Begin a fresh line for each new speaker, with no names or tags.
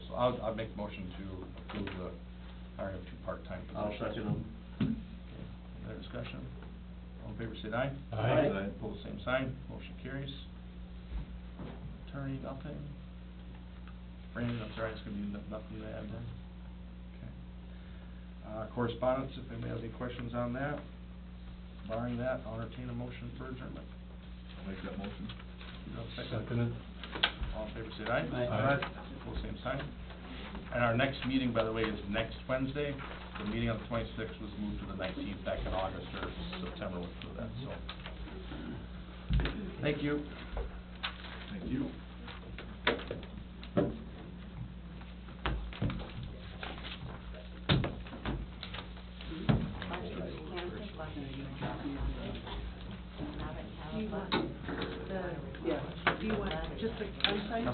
I'll, I'll make motion to approve the hiring of two part-time
I'll
positions.
second them.
Other discussion? All in favor, say aye.
Aye.
Aye.
Pull the same sign, motion carries. Attorney, nothing. Brandon, I'm sorry, it's gonna be no- nothing to add then. Okay. Uh, correspondence, if anybody has any questions on that. Barring that, I'll entertain a motion for adjournment.
I'll make that motion.
You have a second?
Second it.
All in favor, say aye.
Aye.
Aye.
Pull the same sign. And our next meeting, by the way, is next Wednesday. The meeting on the twenty-sixth was moved to the nineteenth back in August or September, which was that, so. Thank you.
Thank you.